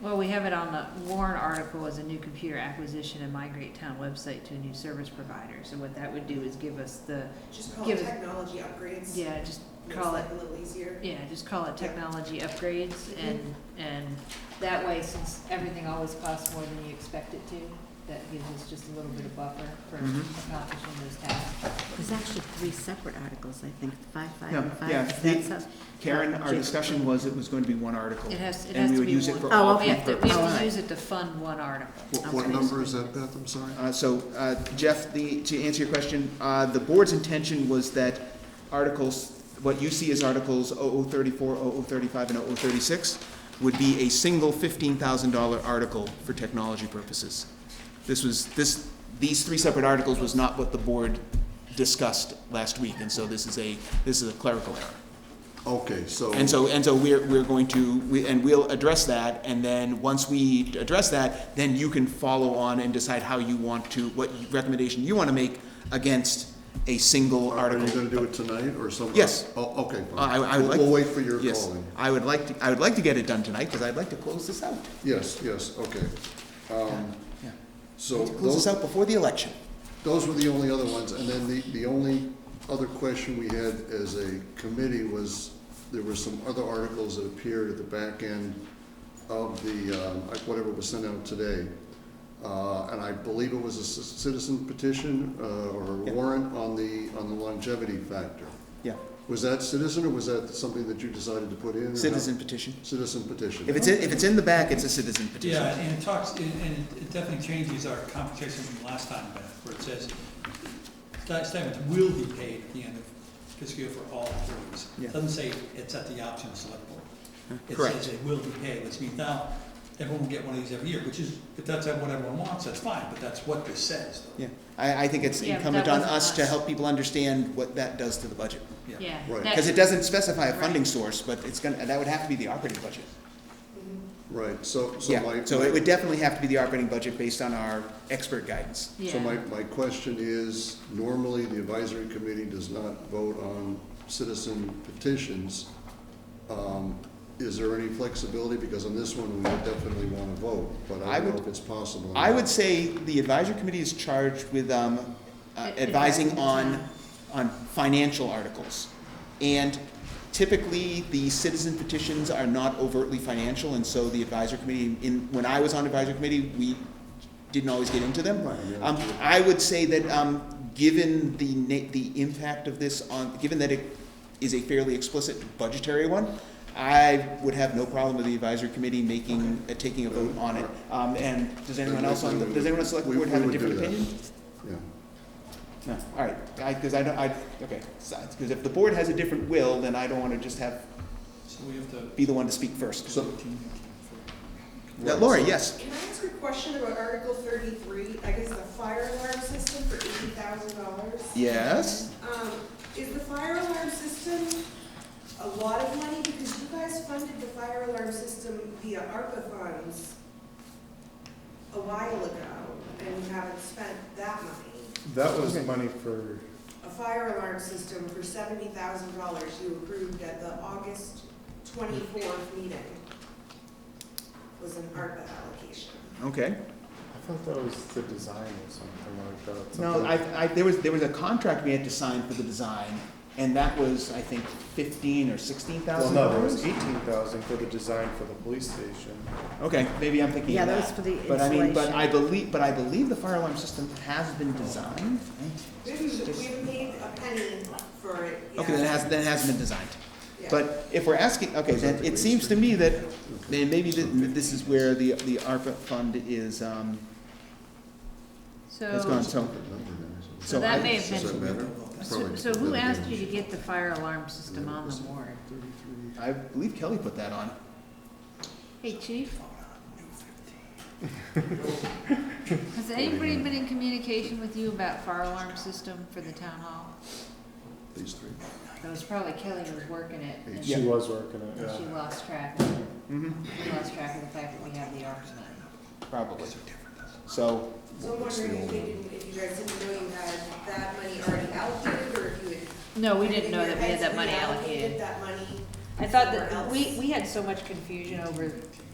Well, we have it on the Warren article as a new computer acquisition and migrate town website to a new service provider. So what that would do is give us the, Just call it Give us- technology upgrades. yeah, just Makes call it, life a little easier. yeah, just call it technology upgrades and, and that way, since everything always costs more than you expect it to, that gives us just a little bit of buffer for Mhm. accomplishing those tasks. There's actually three separate articles, I think, five, five, and No, five. yeah, Is the- that some- Karen, our discussion was it was going to be one article. It has, it And has we to would be use it for one. Oh, all okay. We have to, three we have Alright. to use it to fund one article. What, what Okay. number is that, Beth? I'm sorry. Uh, So, uh, Jeff, the, to answer your question, uh, the board's intention was that articles, what you see as articles 0034, 0035, and 0036 would be a single $15,000 article for technology purposes. This was, this, these three separate articles was not what the board discussed last week, and so this is a, this is a clerical error. Okay, so. And so, and so we're, we're going to, we- and we'll address that, and then, once we address that, then you can follow on and decide how you want to, what recommendation you want to make against a single Are you article. gonna do it tonight or some? Yes. Oh, okay. fine. I, I would like. We'll wait for your yes. calling. I would like to, I would like to get it done tonight, because I'd like to close this out. Yes, yes, okay. Um, Yeah. So Close this those, out before the election. those were the only other ones, and then the, the only other question we had as a committee was, there were some other articles that appeared at the back end of the, um, like whatever was sent out today. Uh, and I believe it was a c- citizen petition, uh, or a Yeah. warrant on the, on the longevity factor. Yeah. Was that citizen, or was that something that you decided to put in? or not? Citizen petition. Citizen petition. If it's, in- if it's in the back, it's a citizen petition. Yeah, and it talks, and and it definitely changes our conversation from last time, Beth, where it says, sta- stipends will be paid at the end of fiscal year for all employees. Yeah. Doesn't say it's at the option of select board. It Correct. says it will be paid, which means now, everyone will get one of these every year, which is, if that's what everyone wants, that's fine, but that's what this says, though. Yeah. I, I think it's Yeah, but incumbent that on wasn't us to us. help people understand what that does to the budget. Yeah. Right. that- Because it doesn't specify a funding Right. source, but it's gonna, that would have to be the operating budget. Right, so, so Yeah, my. so it would definitely have to be the operating budget based on our expert guidance. Yeah. So my, my question is, normally the advisory committee does not vote on citizen petitions. Um, Is there any flexibility? Because on this one, we would definitely want to vote, but I I don't know would- if it's possible. or I not. would say the advisory committee is charged with um, uh, Ad- advising advising the on, town. on financial articles. And typically, the citizen petitions are not overtly financial, and so the advisory committee, in, when I was on advisory committee, we didn't always get into them. Right, yeah. Um, I would say that, um, given the na- the impact of this on, given that it is a fairly explicit budgetary one, I would have no problem with the advisory committee making, uh, taking a vote on it. Um, and does anyone else on, the- does anyone on the select We- board we have a would do different that. opinion? Yeah, No, all right, I, cause I don't, I, okay, because if the board has a different will, then I don't wanna just have, So we have to. be the one to speak first. So- Uh, Lori, yes, Can I ask a question about Article thirty-three? I guess the fire alarm system for eighty thousand dollars? yes, Um, is the fire alarm system a lot of money? Because you guys funded the fire alarm system via ARPA funds a while ago, and you haven't spent that money. That was money for, a fire alarm system for seventy thousand dollars you approved at the August twenty-fourth meeting was an ARPA allocation. okay. I thought that was the design or something like that. No, something- I, I, there was, there was a contract we had to sign for the design, and that was, I think, fifteen or sixteen Well, thousand no, there dollars? was eighteen thousand for the design for the police station. Okay, maybe I'm thinking Yeah, of that that. was for the But I mean, but insulation. I believe, but I believe the fire alarm system has been designed. We haven't, we haven't paid a penny for it yet. Okay, then it has, then it hasn't been designed. Yeah. But if we're asking, okay, then it seems to me that, then maybe thi- this is where the, the ARPA fund is, um, has gone, So, so. Good number there, so- So so that I- may have Does that been, matter? so, Probably so who doesn't asked matter. you to get the fire alarm system on the warrant? I believe Kelly put that on. Hey, chief? Has anybody been in communication with you about fire alarm system for the town hall? These three. That was probably Kelly who was working it, and She she was working it, yeah. lost track, Mm-hmm. she lost track of the fact that we have the ARPA money. Probably. So, So I'm wondering if they didn't, if you guys didn't know you had that money already allocated, or if you had. No, we didn't know that we had that if you money had allocated. That money. I thought somewhere that, else. we, we had so much confusion over